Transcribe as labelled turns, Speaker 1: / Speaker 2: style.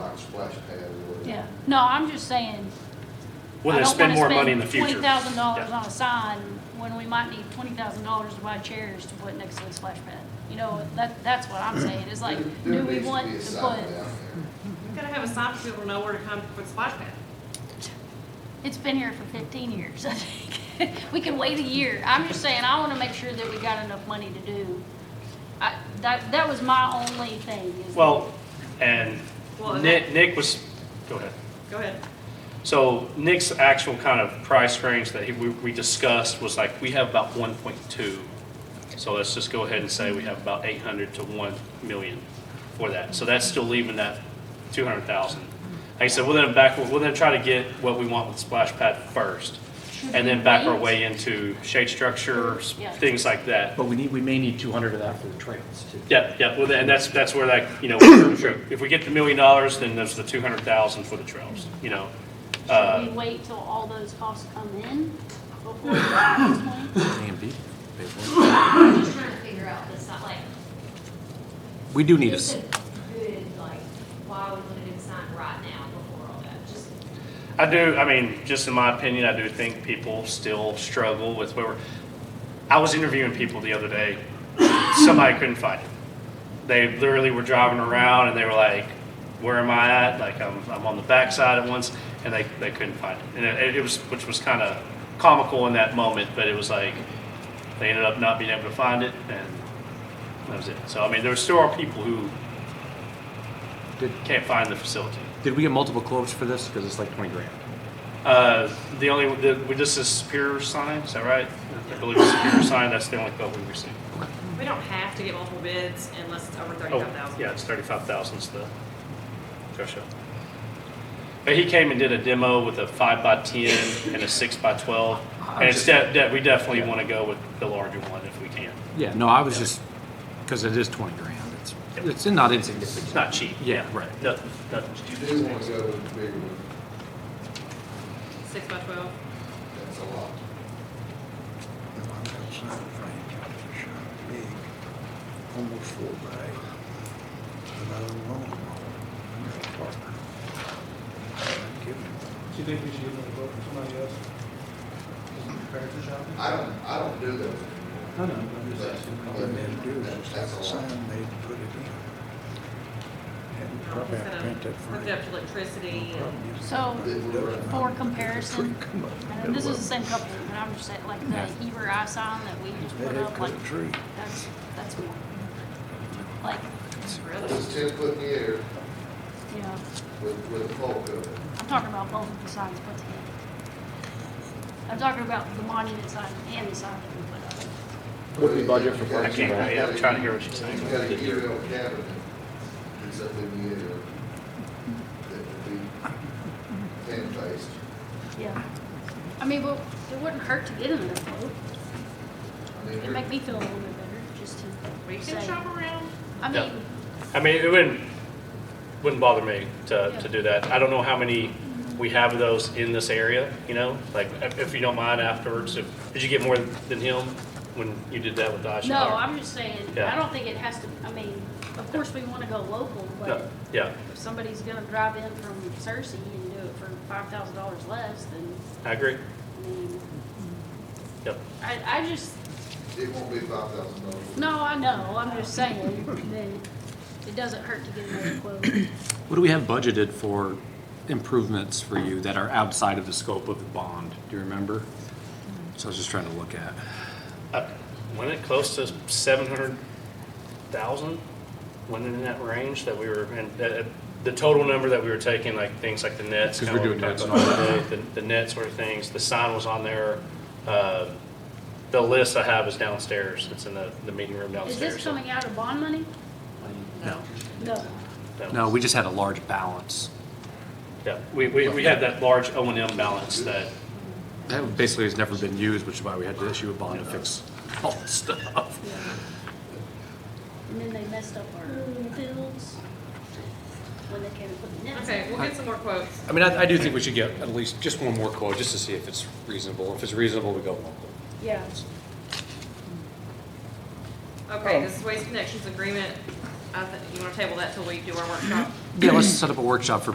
Speaker 1: like splash pad or whatever.
Speaker 2: Yeah, no, I'm just saying.
Speaker 3: We're gonna spend more money in the future.
Speaker 2: Twenty thousand dollars
Speaker 3: Yeah.
Speaker 2: on a sign when we might need twenty thousand dollars to buy chairs to put next to the splash pad. You know, that, that's what I'm saying. It's like,
Speaker 1: There
Speaker 2: do we
Speaker 1: needs to
Speaker 2: want
Speaker 1: be a
Speaker 2: to
Speaker 1: sign
Speaker 2: put?
Speaker 1: down
Speaker 4: You've gotta have a sign for people to know where to come for the splash pad.
Speaker 2: It's been here for fifteen years, I think. We can wait a year. I'm just saying, I wanna make sure that we got enough money to do. I, that, that was my only thing is.
Speaker 3: Well, and
Speaker 4: Well, and
Speaker 3: Nick, Nick was, go ahead.
Speaker 4: Go ahead.
Speaker 3: So Nick's actual kind of price range that he- we, we discussed was like, we have about one point two. So let's just go ahead and say we have about eight hundred to one million for that. So that's still leaving that two hundred thousand. Like I said, we're gonna back, we're gonna try to get what we want with splash pad first. And then back our way into shade structures,
Speaker 2: Yeah.
Speaker 3: things like that.
Speaker 5: But we need, we may need two hundred of that for the trails too.
Speaker 3: Yeah, yeah, well, and that's, that's where that, you know, if we get the million dollars, then there's the two hundred thousand for the trails, you know?
Speaker 2: Should
Speaker 3: Uh,
Speaker 2: we wait till all those costs come in before we buy this one?
Speaker 6: I'm just trying to figure out this, not like.
Speaker 5: We do need a,
Speaker 6: just
Speaker 5: s-
Speaker 6: a Good, like, why would we do a sign right now before all that, just.
Speaker 3: I do, I mean, just in my opinion, I do think people still struggle with where, we're- I was interviewing people the other day, somebody couldn't find it. They literally were driving around and they were like, where am I at? Like, I'm, I'm on the backside at once, and they, they couldn't find it. And it, it was, which was kind of comical in that moment, but it was like, they ended up not being able to find it, and that was it. So, I mean, there still are people who
Speaker 5: Did-
Speaker 3: can't find the facility.
Speaker 5: did we get multiple quotes for this? Because it's like twenty grand.
Speaker 3: Uh, the only, the, we just a Superior sign, is that right? I believe it's Superior sign, that's the only quote we received.
Speaker 4: We don't have to get multiple bids unless it's over
Speaker 3: Oh,
Speaker 4: thirty-five thousand.
Speaker 3: yeah, it's thirty-five thousand's the threshold. But he came and did a demo with a five by ten and a six by twelve. And it's de- de- we definitely
Speaker 5: Yeah.
Speaker 3: want to go with the larger one if we can.
Speaker 5: Yeah, no, I was just, because it is twenty grand. It's,
Speaker 3: Yep.
Speaker 5: it's not insignificant.
Speaker 3: It's not cheap.
Speaker 5: Yeah, right.
Speaker 3: Nothing, nothing's
Speaker 1: You
Speaker 3: cheap.
Speaker 1: do want to go with the bigger one,
Speaker 4: Six by twelve.
Speaker 1: that's a lot.
Speaker 7: That's not Frank County shot big, almost full bay. But I don't know. I'm not a partner. I'd give him
Speaker 8: Do you think we should give them a vote for somebody else? Isn't prepared for shopping?
Speaker 1: I don't, I don't do those.
Speaker 8: I know, but I'm just asking.
Speaker 7: All they had to do was have a sign made to put it in. And
Speaker 4: It's
Speaker 7: probably have to
Speaker 4: gonna
Speaker 7: paint that
Speaker 4: Hook
Speaker 7: front.
Speaker 4: it up to electricity and
Speaker 7: Problem is,
Speaker 2: So, for comparison,
Speaker 7: tree come up.
Speaker 2: and this is the same company, but I'm just saying, like the Eber Eye sign that we just
Speaker 7: That
Speaker 2: put
Speaker 7: had
Speaker 2: up, like,
Speaker 7: cut a tree.
Speaker 2: that's, that's more. Like,
Speaker 4: really.
Speaker 1: It's ten foot in the air
Speaker 2: you know,
Speaker 1: with, with a pole cover.
Speaker 2: I'm talking about both of the signs put together. I'm talking about the monument sign and the sign that we put up.
Speaker 1: What do we budget for
Speaker 3: I can't, yeah, I'm trying to hear what you're saying.
Speaker 1: You've got a aerial cabinet that's up in the air that would be ten faced.
Speaker 2: Yeah. I mean, well, it wouldn't hurt to get another quote.
Speaker 1: I mean,
Speaker 2: It'd make
Speaker 1: there-
Speaker 2: me feel a little bit better, just to
Speaker 4: We can
Speaker 2: say.
Speaker 4: shop around.
Speaker 2: I
Speaker 3: Yeah.
Speaker 2: mean,
Speaker 3: I mean, it wouldn't, wouldn't bother me to, to do that. I don't know how many we have of those in this area, you know? Like, if- if you don't mind afterwards, if, did you get more than him when you did that with Dodge?
Speaker 2: no, I'm just saying, I
Speaker 3: Yeah.
Speaker 2: don't think it has to, I mean, of course, we want to go local,
Speaker 3: No,
Speaker 2: but
Speaker 3: Yeah,
Speaker 2: if somebody's going to drive in from Cersei and do it for five thousand dollars less, then,
Speaker 3: I agree.
Speaker 2: I mean,
Speaker 3: Yep.
Speaker 2: I, I just,
Speaker 1: It won't be five thousand dollars.
Speaker 2: no, I know, I'm just saying that it doesn't hurt to get another quote.
Speaker 5: What do we have budgeted for improvements for you that are outside of the scope of the bond? Do you remember? So I was just trying to look at.
Speaker 3: Uh, Wasn't it close to seven hundred thousand? Wasn't it in that range that we were, and uh, uh, the total number that we were taking, like things like the nets?
Speaker 5: 'Cause
Speaker 3: kinda
Speaker 5: we're
Speaker 3: what
Speaker 5: doing
Speaker 3: talked
Speaker 5: nets
Speaker 3: about today, The, the net sort of things, the sign was on there. Uh, The list I have is downstairs, it's in the, the meeting room
Speaker 2: Is
Speaker 3: downstairs.
Speaker 2: this coming out of bond money?
Speaker 5: No.
Speaker 2: No.
Speaker 3: So,
Speaker 5: No, we just had a large balance.
Speaker 3: Yeah, we, we, we had that large O and M balance that,
Speaker 5: That basically has never been used, which is why we had to issue a bond to fix all the stuff.
Speaker 2: And then they messed up our bills when they came to put the nets.
Speaker 4: Okay, we'll get some more quotes.
Speaker 5: I mean, I, I do think we should get at least just one more quote, just to see if it's reasonable. If it's reasonable, we go local.
Speaker 2: Yeah.
Speaker 3: Oh.
Speaker 4: Okay, this is Waste Connections agreement. I think, you wanna table that till we do our workshop?
Speaker 5: Yeah, let's set up a workshop for